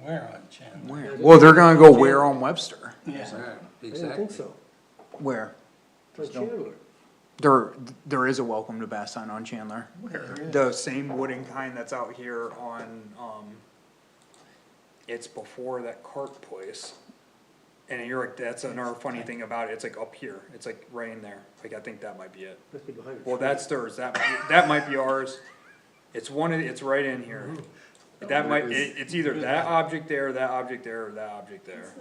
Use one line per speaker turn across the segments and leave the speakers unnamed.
Where on Chandler?
Where? Well, they're gonna go where on Webster?
Yeah,
I don't
Exactly.
think so.
Where?
For Chandler.
There, there is a welcome to Bath sign on Chandler.
Where?
The same wooden kind that's out here on, um, it's before that cart place. And you're like, that's another funny thing about it, it's like up here, it's like right in there, like I think that might be it.
Must be behind
Well, that's theirs, that, might- that might be ours, it's one, of it's right in here. Mm-hmm. That might, it, it's either that object there, that object there, or that object there.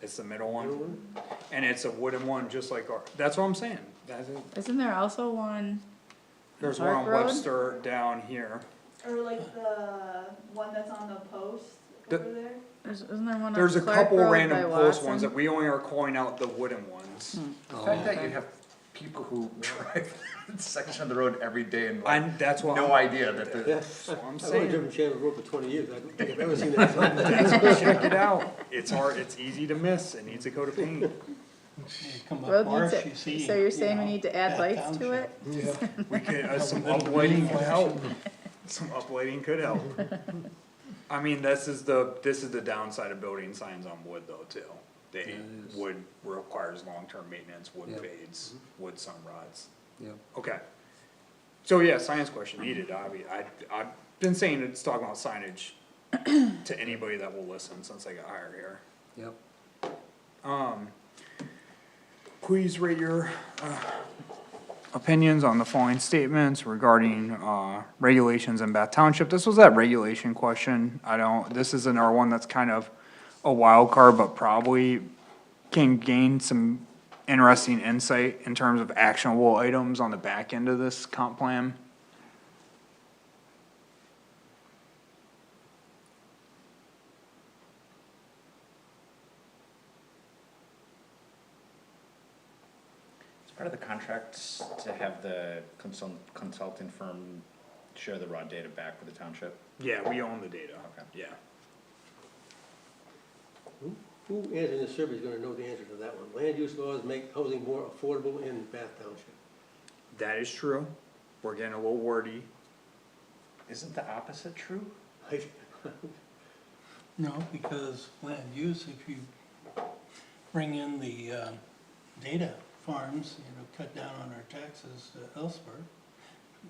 It's the middle one, and it's a wooden one, just like our, that's what I'm saying, that's it.
Isn't there also one?
There's one
Park
on
Road?
Webster down here.
Or like the one that's on the post
The-
over there?
There's, isn't there one on
There's a
Clark
couple
Road
random
by
post ones
Watson? Hmm.
that we only are calling out the wooden ones.
The
The fact that you have people who drive that section of the road every day and like,
And that's what.
no
I'm-
idea that the.
Yes,
what I'm
I've only
saying.
driven Chandler Road for twenty years, I don't think I've ever seen that.
Check it out. It's hard, it's easy to miss. It needs a coat of paint.
You come up
Road needs
Marsh, you
it,
see.
so you're saying we
you know,
need to add
that
lights to
township.
it?
We could, uh, some
Little green
uplighting could help.
flashing.
Some uplighting could help. I mean, this is the, this is the downside of building signs on wood though too. They,
Yes.
wood requires long-term maintenance, wood
Yeah.
fades, wood sun rots.
Yep.
Okay. So yeah, science question needed, obvi, I, I've been saying it's talking about signage to anybody that will listen since I got hired here.
Yep.
Um, please rate your, uh. Opinions on the following statements regarding, uh, regulations in Bath Township. This was that regulation question. I don't, this is another one that's kind of a wild card, but probably can gain some interesting insight in terms of actionable items on the back end of this comp plan.
It's part of the contracts to have the consult, consultant firm share the raw data back with the township.
Yeah, we own the data.
Okay.
Yeah.
Who answering the survey is gonna know the answer to that one? Land use laws make housing more affordable in Bath Township.
That is true. We're getting a little wordy.
Isn't the opposite true?
I-
No, because land use, if you bring in the, um, data farms, you know, cut down on our taxes uh, elsewhere,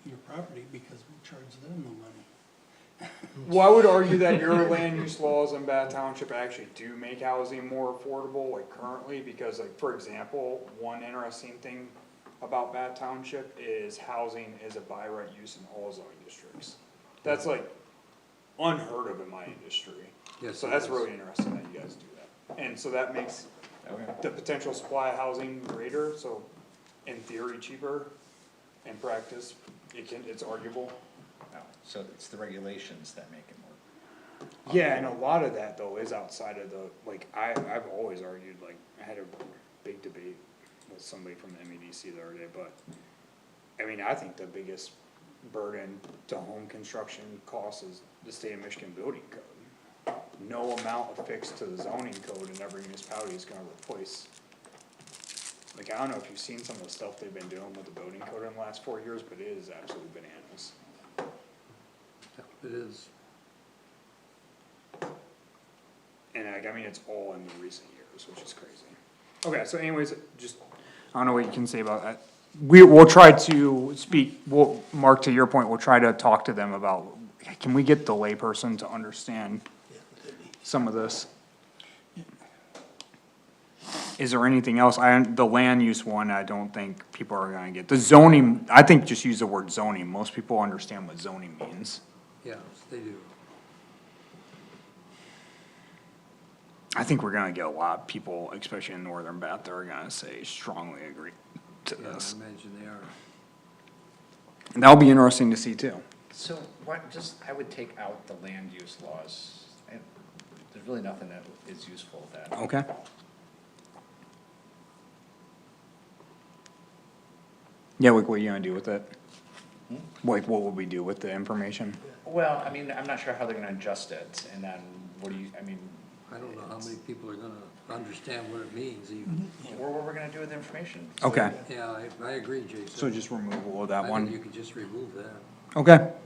your property, because we charge them the money.
Well, I would argue that your land use laws in Bath Township actually do make housing more affordable, like currently, because like, for example, one interesting thing about Bath Township is housing is a by right use in all zoning districts. That's like unheard of in my industry.
Yes,
So
it
that's
is.
really interesting that you guys do that. And so that makes
Okay.
the potential supply of housing greater, so in theory cheaper, in practice, it can, it's arguable.
No, so it's the regulations that make it more.
Yeah, and a lot of that though is outside of the, like, I, I've always argued, like, I had a big debate with somebody from the MEDC the other day, but. I mean, I think the biggest burden to home construction costs is the state of Michigan building code. No amount affixed to the zoning code in every municipality is gonna replace. Like, I don't know if you've seen some of the stuff they've been doing with the building code in the last four years, but it is absolutely bananas.
Yep, It is.
And like, I mean, it's all in the recent years, which is crazy. Okay, so anyways, just. I don't know what you can say about that. We, we'll try to speak, we'll, Mark, to your point, we'll try to talk to them about, can we get the layperson to understand some of this? Is there anything else? I, the land use one, I don't think people are gonna get. The zoning, I think just use the word zoning. Most people understand what zoning means.
Yeah, they do.
I think we're gonna get a lot of people, especially in northern Bath, that are gonna say strongly agree to
Yeah, I
this.
imagine they are.
And that'll be interesting to see too.
So what, just, I would take out the land use laws, and there's really nothing that is useful that.
Okay. Yeah, like what are you gonna do with it? Hmm? Like what would we do with the information?
Well, I mean, I'm not sure how they're gonna adjust it, and then what do you, I mean,
I don't know how many people are gonna understand what it means even.
what, what we're gonna do with the information?
Okay,
Yeah, I, I agree, Jason.
so just remove all of
I
that
think You
one.
could just remove that.
Okay.